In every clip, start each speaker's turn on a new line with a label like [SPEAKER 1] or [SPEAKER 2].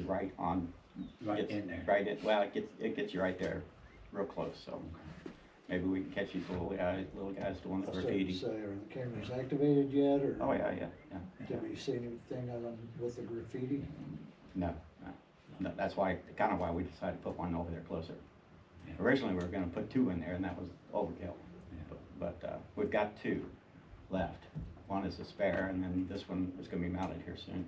[SPEAKER 1] right on,
[SPEAKER 2] right
[SPEAKER 1] gets
[SPEAKER 2] in there.
[SPEAKER 1] right in, well, it gets, it gets you right there, real close, so. Maybe we can catch these little guys, little guys doing the
[SPEAKER 3] I started to
[SPEAKER 1] graffiti.
[SPEAKER 3] say, are the cameras activated yet, or?
[SPEAKER 1] Oh, yeah, yeah, yeah.
[SPEAKER 3] Have you seen anything on, with the graffiti?
[SPEAKER 1] No, no, no, that's why, kind of why we decided to put one over there closer.
[SPEAKER 2] Yeah.
[SPEAKER 1] Originally, we were gonna put two in there, and that was overkill.
[SPEAKER 2] Yeah.
[SPEAKER 1] But- But, uh, we've got two left. One is a spare, and then this one is gonna be mounted here soon.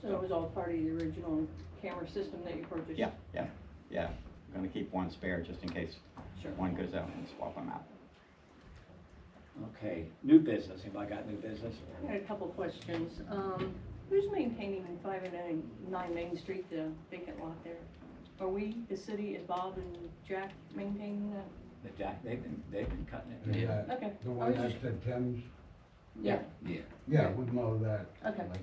[SPEAKER 4] So it was all part of the original camera system that you purchased?
[SPEAKER 1] Yeah, yeah, yeah. I'm gonna keep one spare just in case
[SPEAKER 4] Sure.
[SPEAKER 1] one goes out and swap them out.
[SPEAKER 2] Okay, new business, anybody got new business?
[SPEAKER 4] I had a couple questions. Um, who's maintaining five and nine- nine Main Street, the vacant lot there? Are we, the city, is Bob and Jack maintaining that?
[SPEAKER 2] The Jack, they've been, they've been cutting it.
[SPEAKER 5] Yeah.
[SPEAKER 4] Okay.
[SPEAKER 5] The
[SPEAKER 4] I
[SPEAKER 5] one
[SPEAKER 4] was just-
[SPEAKER 5] that the Thames,
[SPEAKER 4] Yeah,
[SPEAKER 2] Yeah.
[SPEAKER 5] yeah, we mow that.
[SPEAKER 4] Okay.
[SPEAKER 5] like,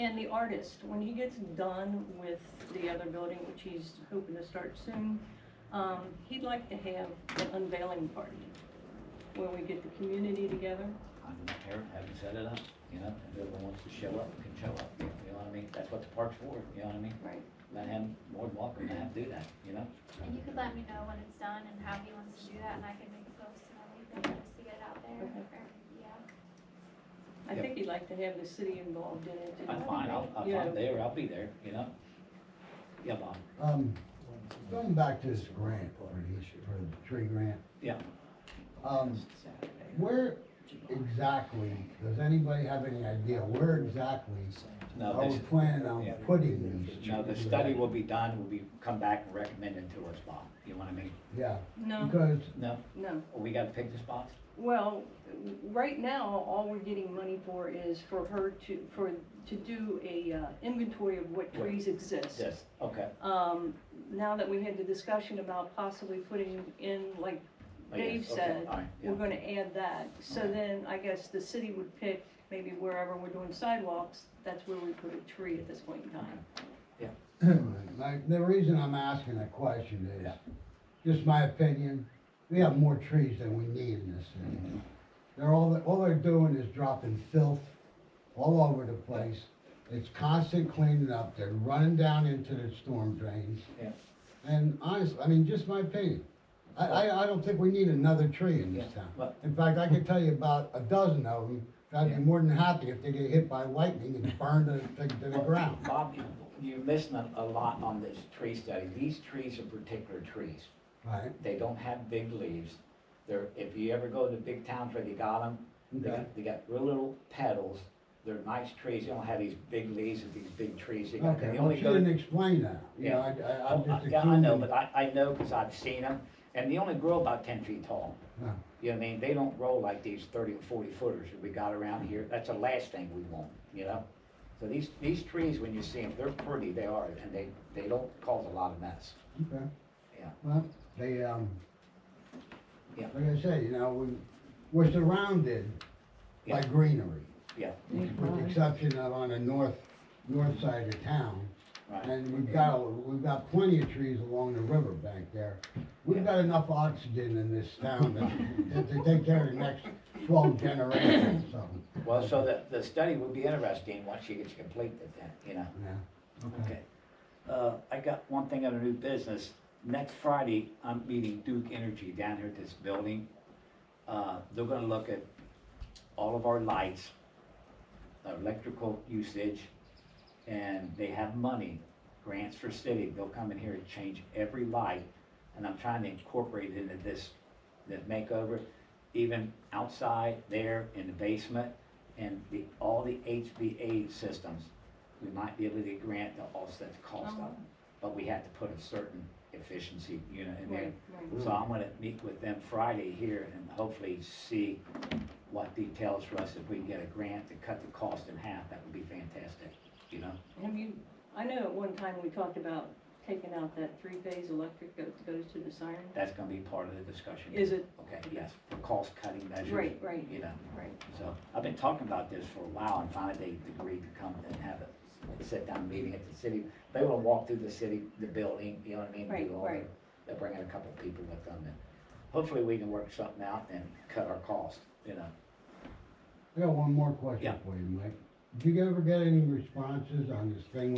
[SPEAKER 4] and the artist, when he gets done with the other building, which he's hoping to start soon, um, he'd like to have an unveiling party where we get the community together.
[SPEAKER 2] I don't care, haven't set it up, you know, if everyone wants to show up, can show up, you know what I mean? That's what the park's for, you know what I mean?
[SPEAKER 4] Right.
[SPEAKER 2] Let him, more than welcome to have, do that, you know?
[SPEAKER 6] And you could let me know when it's done and how he wants to do that, and I can make a post and everything, just to get it out there,
[SPEAKER 4] Okay.
[SPEAKER 6] or, yeah.
[SPEAKER 4] I think he'd like to have the city involved in it. too.
[SPEAKER 2] I'm fine, I'll, I'll,
[SPEAKER 4] Yeah.
[SPEAKER 2] I'm there, I'll be there, you know? Yeah, Bob,
[SPEAKER 5] Um, going back to this grant, for the, for the tree grant,
[SPEAKER 2] yeah.
[SPEAKER 5] um,
[SPEAKER 2] Saturday.
[SPEAKER 5] where exactly, does anybody have any idea where exactly
[SPEAKER 2] No,
[SPEAKER 5] are we
[SPEAKER 2] this,
[SPEAKER 5] planning
[SPEAKER 2] yeah.
[SPEAKER 5] on putting these?
[SPEAKER 2] no, the
[SPEAKER 5] trees?
[SPEAKER 2] study will be done, will be, come back and recommend it to us, Bob, you know what I mean?
[SPEAKER 5] Yeah,
[SPEAKER 4] No,
[SPEAKER 5] because,
[SPEAKER 2] No,
[SPEAKER 4] no.
[SPEAKER 2] we gotta pick the spots?
[SPEAKER 4] Well, right now, all we're getting money for is for her to, for, to do a uh, inventory of what trees exist.
[SPEAKER 2] Yes, okay.
[SPEAKER 4] Um, now that we had the discussion about possibly putting in, like
[SPEAKER 2] Oh, yes,
[SPEAKER 4] Dave
[SPEAKER 2] okay,
[SPEAKER 4] said,
[SPEAKER 2] all right, yeah.
[SPEAKER 4] we're gonna add that. So
[SPEAKER 2] Okay.
[SPEAKER 4] then, I guess the city would pick, maybe wherever we're doing sidewalks, that's where we put a tree at this point in time.
[SPEAKER 5] like, the reason I'm asking that question is, just my opinion, we have more trees than we need in this
[SPEAKER 2] Mm-hmm.
[SPEAKER 5] city. They're all, all they're doing is dropping filth all over the place. It's constant cleaning up, they're running down into the storm drains.
[SPEAKER 2] Yeah.
[SPEAKER 5] And honestly, I mean, just my opinion, I, I, I don't think we need another tree in this
[SPEAKER 2] Yeah,
[SPEAKER 5] town.
[SPEAKER 2] but-
[SPEAKER 5] In fact, I could tell you about a dozen of them, I'd
[SPEAKER 2] Yeah.
[SPEAKER 5] be more than happy if they get hit by lightning and burned to, to- to the
[SPEAKER 2] Well,
[SPEAKER 5] ground.
[SPEAKER 2] Bob, you- you're missing a a lot on this tree study. These trees are particular trees.
[SPEAKER 5] Right,
[SPEAKER 2] They don't have big leaves. They're, if you ever go to big towns where they got them, they
[SPEAKER 5] Okay.
[SPEAKER 2] got, they got real little petals. They're nice trees. They don't have these big leaves of these big trees. They got-
[SPEAKER 5] okay,
[SPEAKER 2] they
[SPEAKER 5] well,
[SPEAKER 2] only
[SPEAKER 5] you
[SPEAKER 2] go-
[SPEAKER 5] didn't explain that, you know, I, I, I'm
[SPEAKER 2] Oh, I-
[SPEAKER 5] just.
[SPEAKER 2] Yeah, I know,
[SPEAKER 5] assuming-
[SPEAKER 2] but I, I know because I've seen them. And they only grow about ten feet tall.
[SPEAKER 5] Yeah.
[SPEAKER 2] You know what I mean? They don't grow like these thirty and forty footers that we got around here. That's the last thing we want, you know? So these, these trees, when you see them, they're pretty, they are, and they, they don't cause a lot of mess.
[SPEAKER 5] Okay.
[SPEAKER 2] Yeah.
[SPEAKER 5] Well, they, um,
[SPEAKER 2] Yeah.
[SPEAKER 5] like I said, you know, we, we're surrounded by
[SPEAKER 2] Yeah.
[SPEAKER 5] greenery,
[SPEAKER 2] Yeah,
[SPEAKER 5] with the exception of on the north, north side of town.
[SPEAKER 2] right.
[SPEAKER 5] And we've got, we've got plenty of trees along the riverbank there. We've got enough oxygen in this town to, to take care of the next twelve generations or something.
[SPEAKER 2] Well, so the, the study would be interesting once you get to complete it then, you know?
[SPEAKER 5] Yeah,
[SPEAKER 2] Okay. Uh, I got one thing on a new business. Next Friday, I'm meeting Duke Energy down here at this building. Uh, they're gonna look at all of our lights, electrical usage, and they have money, grants for city. They'll come in here and change every light, and I'm trying to incorporate it into this, this makeover, even outside there in the basement, and the, all the HVA systems. We might be able to get grant to offset the cost of them, but we have to put a certain efficiency unit in there.
[SPEAKER 4] Right, right.
[SPEAKER 2] So I'm gonna meet with them Friday here and hopefully see what details for us, if we can get a grant to cut the cost in half, that would be fantastic, you know?
[SPEAKER 4] Have you, I know at one time we talked about taking out that three-phase electric that goes to the siren.
[SPEAKER 2] That's gonna be part of the discussion.
[SPEAKER 4] Is it?
[SPEAKER 2] Okay, yes, for cost cutting measures.
[SPEAKER 4] Right, right.
[SPEAKER 2] You know,
[SPEAKER 4] Right.
[SPEAKER 2] so I've been talking about this for a while and finally they agreed to come and have a sit-down meeting at the city. They wanna walk through the city, the building, you know what I mean?
[SPEAKER 4] Right,
[SPEAKER 2] do all their-
[SPEAKER 4] right.
[SPEAKER 2] They're bringing a couple people with them and hopefully we can work something out and cut our cost, you know?
[SPEAKER 5] I got one more
[SPEAKER 2] Yeah.
[SPEAKER 5] question for you, Mike. Did you ever get any responses on this thing with